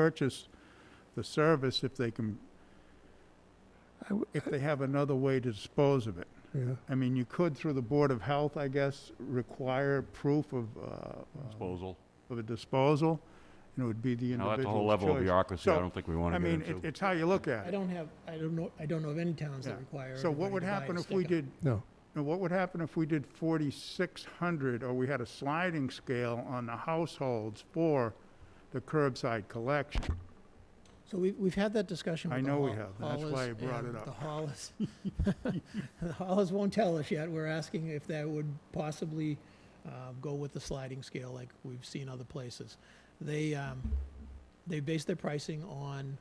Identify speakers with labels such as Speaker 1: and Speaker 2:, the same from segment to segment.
Speaker 1: purchase the service if they can,
Speaker 2: I w-
Speaker 1: if they have another way to dispose of it.
Speaker 2: Yeah,
Speaker 1: I mean, you could, through the Board of Health, I guess, require proof of, uh, um,
Speaker 3: disposal.
Speaker 1: of a disposal, and it would be the
Speaker 3: Now,
Speaker 1: individual's
Speaker 3: that's
Speaker 1: choice.
Speaker 3: a whole level of bureaucracy I
Speaker 1: So,
Speaker 3: don't think we want
Speaker 1: I
Speaker 3: to get
Speaker 1: mean, it-
Speaker 3: into.
Speaker 1: it's how you look at
Speaker 4: I
Speaker 1: it.
Speaker 4: don't have, I don't know, I don't know of any towns
Speaker 1: Yeah.
Speaker 4: that require.
Speaker 1: So what
Speaker 4: everybody
Speaker 1: would
Speaker 4: to buy a
Speaker 1: happen if we
Speaker 4: sticker.
Speaker 1: did,
Speaker 2: no.
Speaker 1: now, what would happen if we did forty-six hundred, or we had a sliding scale on the households for the curbside collection?
Speaker 4: So we've, we've had that discussion
Speaker 1: I
Speaker 4: with the
Speaker 1: know we
Speaker 4: Hall-
Speaker 1: have, and that's why
Speaker 4: Hallers
Speaker 1: I brought
Speaker 4: and
Speaker 1: it up.
Speaker 4: The Hollis, the Hollis won't tell us yet. We're asking if that would possibly uh, go with the sliding scale like we've seen other places. They, um, they base their pricing on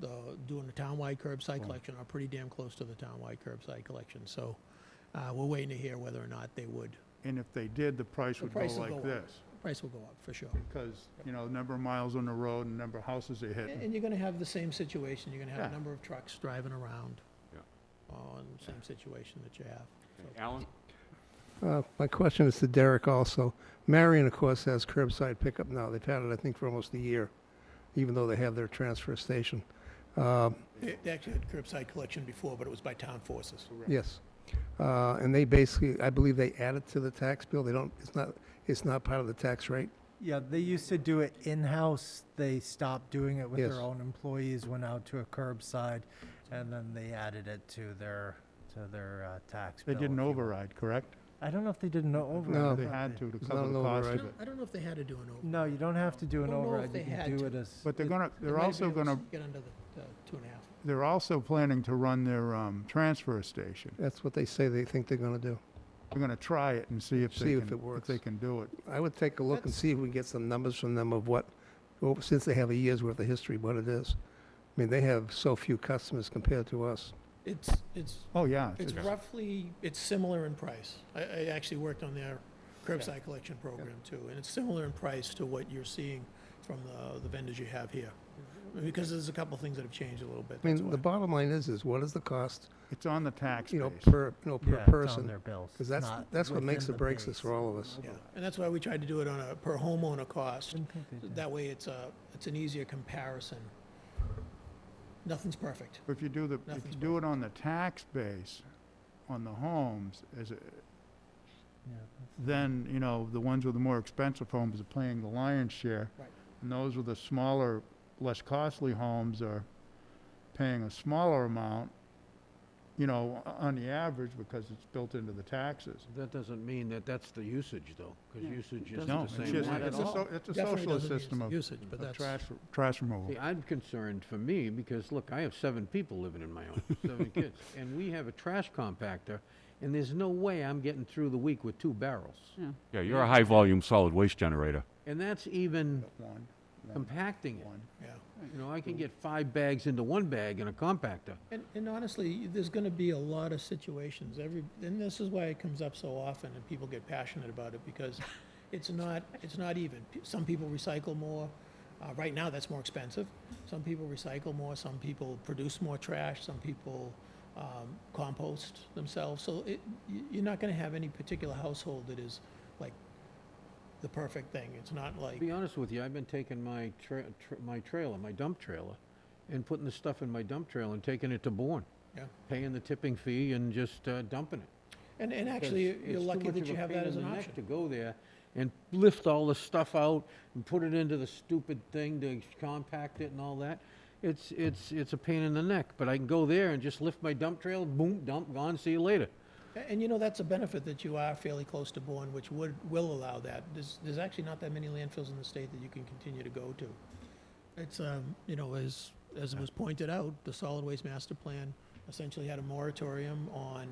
Speaker 4: the, doing the townwide curbside collection, or pretty damn close to the townwide curbside collection. So uh, we're waiting to hear whether or not they would.
Speaker 1: And if they did, the price
Speaker 4: The
Speaker 1: would go
Speaker 4: price will
Speaker 1: like
Speaker 4: go up.
Speaker 1: this,
Speaker 4: Price will go up, for sure.
Speaker 1: because, you know, number of miles on the road and number of houses they
Speaker 4: And-
Speaker 1: hit.
Speaker 4: And you're gonna have the same situation, you're gonna have
Speaker 1: Yeah.
Speaker 4: a number of trucks driving around.
Speaker 3: Yeah.
Speaker 4: On the same situation that you have.
Speaker 3: Okay, Alan,
Speaker 2: Uh, My question is to Derek also. Marion, of course, has curbside pickup now. They've had it, I think, for almost a year, even though they have their transfer station. Um,
Speaker 4: They they actually had curbside collection before, but it was by town forces.
Speaker 2: Yes. Uh, And they basically, I believe they add it to the tax bill. They don't, it's not, it's not part of the tax rate.
Speaker 5: Yeah, they used to do it in-house. They stopped doing it with
Speaker 2: Yes.
Speaker 5: their own employees, went out to a curbside, and then they added it to their, to their uh, tax
Speaker 1: They
Speaker 5: bill, if
Speaker 1: didn't
Speaker 5: you will.
Speaker 1: override, correct?
Speaker 5: I don't know if they did an override.
Speaker 2: No.
Speaker 1: They
Speaker 5: but
Speaker 1: had
Speaker 5: they-
Speaker 1: to, to
Speaker 2: It's
Speaker 1: cover
Speaker 2: not
Speaker 1: the
Speaker 2: an
Speaker 1: cost
Speaker 4: I
Speaker 1: of
Speaker 2: override.
Speaker 1: it.
Speaker 4: don't, I don't know if they had to do an over.
Speaker 5: No, you don't have to do an
Speaker 4: Don't know if
Speaker 5: override.
Speaker 4: they
Speaker 5: You
Speaker 4: had
Speaker 5: can do
Speaker 4: to.
Speaker 5: it as.
Speaker 1: But they're
Speaker 5: it-
Speaker 1: gonna,
Speaker 4: They
Speaker 1: they're
Speaker 4: might have
Speaker 1: also
Speaker 4: been able
Speaker 1: gonna,
Speaker 4: to Get under the, the two and a half.
Speaker 1: they're also planning to run their, um, transfer station.
Speaker 2: That's what they say they think they're going to do.
Speaker 1: They're gonna try it and see if
Speaker 2: See
Speaker 1: they
Speaker 2: if
Speaker 1: can,
Speaker 2: it
Speaker 1: if
Speaker 2: works.
Speaker 1: they can do it.
Speaker 2: I would take a look and
Speaker 4: That's-
Speaker 2: see if we can get some numbers from them of what, well, since they have a year's worth of history, what it is. I mean, they have so few customers compared to us.
Speaker 4: It's, it's,
Speaker 1: Oh, yeah.
Speaker 4: it's
Speaker 3: Okay.
Speaker 4: roughly, it's similar in price. I, I actually worked on their curbside collection program too, and it's similar in price to what you're seeing from the, the vendors you have here. Because there's a couple things that have changed a little bit,
Speaker 2: I
Speaker 4: that's
Speaker 2: mean,
Speaker 4: why.
Speaker 2: the bottom line is, is what is the cost,
Speaker 1: It's on the tax
Speaker 2: you know,
Speaker 1: base.
Speaker 2: per, you know,
Speaker 5: yeah,
Speaker 2: per
Speaker 5: it's on
Speaker 2: person?
Speaker 5: their bills,
Speaker 2: Because that's,
Speaker 5: not
Speaker 2: that's what makes
Speaker 5: within
Speaker 2: or
Speaker 5: the
Speaker 2: breaks this
Speaker 5: base.
Speaker 2: for all of us.
Speaker 4: Yeah, and that's why we tried to do it on a per homeowner cost.
Speaker 5: Didn't think they did.
Speaker 4: That way it's a, it's an easier comparison. Nothing's perfect.
Speaker 1: If you do the, if you
Speaker 4: Nothing's
Speaker 1: do it on the tax base, on the homes, as, a-
Speaker 5: Yeah.
Speaker 1: then, you know, the ones with the more expensive homes are paying the lion's share.
Speaker 4: Right.
Speaker 1: And those with the smaller, less costly homes are paying a smaller amount, you know, o- on the average, because it's built into the taxes.
Speaker 6: That doesn't mean that that's the usage, though, because usage isn't
Speaker 1: No,
Speaker 6: the
Speaker 1: it's
Speaker 6: same
Speaker 1: just,
Speaker 6: one at
Speaker 1: it's a,
Speaker 6: all.
Speaker 1: so- it's a
Speaker 4: Definitely
Speaker 1: socialist
Speaker 4: doesn't mean
Speaker 1: system
Speaker 4: it's
Speaker 1: of,
Speaker 4: Usage, but
Speaker 1: of
Speaker 4: that's,
Speaker 1: trash, trash removal.
Speaker 6: See, I'm concerned for me, because, look, I have seven people living in my home, seven kids, and we have a trash compactor, and there's no way I'm getting through the week with two barrels.
Speaker 3: yeah, you're a high-volume solid waste generator.
Speaker 6: And that's even
Speaker 1: One, one,
Speaker 6: compacting it.
Speaker 1: one.
Speaker 4: yeah.
Speaker 6: You know, I can get five bags into one bag in a compactor.
Speaker 4: And, and honestly, there's gonna be a lot of situations, every, and this is why it comes up so often and people get passionate about it because it's not, it's not even. P- Some people recycle more, uh, right now that's more expensive. Some people recycle more, some people produce more trash, some people, um, compost themselves. So it, you, you're not gonna have any particular household that is like the perfect thing. It's not
Speaker 6: To
Speaker 4: like,
Speaker 6: be honest with you, I've been taking my tra- tr- my trailer, my dump trailer, and putting the stuff in my dump trailer and taking it to Bourne,
Speaker 4: yeah.
Speaker 6: paying the tipping fee and just uh, dumping it.
Speaker 4: And, and actually,
Speaker 6: because
Speaker 4: you're
Speaker 6: it's too
Speaker 4: lucky
Speaker 6: much
Speaker 4: that
Speaker 6: of a
Speaker 4: you have
Speaker 6: pain
Speaker 4: that
Speaker 6: in
Speaker 4: as an
Speaker 6: the neck
Speaker 4: option.
Speaker 6: To go there and lift all the stuff out and put it into the stupid thing to compact it and all that. It's, it's, it's a pain in the neck, but I can go there and just lift my dump trail, boom, dump, gone, see you later.
Speaker 4: A- And you know, that's a benefit that you are fairly close to Bourne, which would, will allow that. There's, there's actually not that many landfills in the state that you can continue to go to. It's, um, you know, as, as it was pointed out, the solid waste master plan essentially had a moratorium on,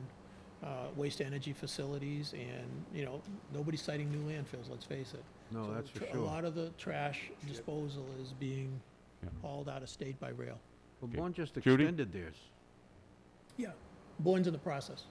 Speaker 4: uh, waste energy facilities and, you know, nobody's citing new landfills, let's face it.
Speaker 6: No,
Speaker 4: So
Speaker 6: Oh, that's for
Speaker 4: tr- A
Speaker 6: sure.
Speaker 4: lot of the trash disposal is being
Speaker 3: Yeah.
Speaker 4: hauled out of state by rail.
Speaker 6: Well, Bourne just
Speaker 3: Judy?
Speaker 6: extended theirs.
Speaker 4: Yeah. Bourne's in the process.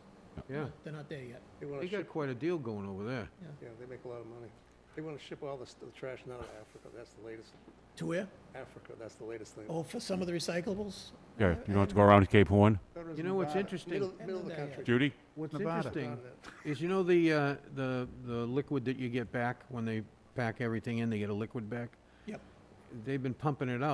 Speaker 6: Yeah,
Speaker 4: They're not there yet.
Speaker 6: they got quite a deal going over there.
Speaker 2: Yeah, they make a lot of money. They want to ship all the, the trash now to Africa. That's the latest.
Speaker 4: To where?
Speaker 2: Africa, that's the latest thing.
Speaker 4: Oh, for some of the recyclables?
Speaker 3: Yeah, you don't have to go around Cape Horn.
Speaker 6: You know what's interesting?
Speaker 4: middle of the country.
Speaker 3: Judy?
Speaker 6: What's
Speaker 1: Nevada.
Speaker 6: interesting is, you know, the, uh, the, the liquid that you get back when they pack everything in, they get a liquid back?
Speaker 4: Yep.
Speaker 6: They've been pumping it out.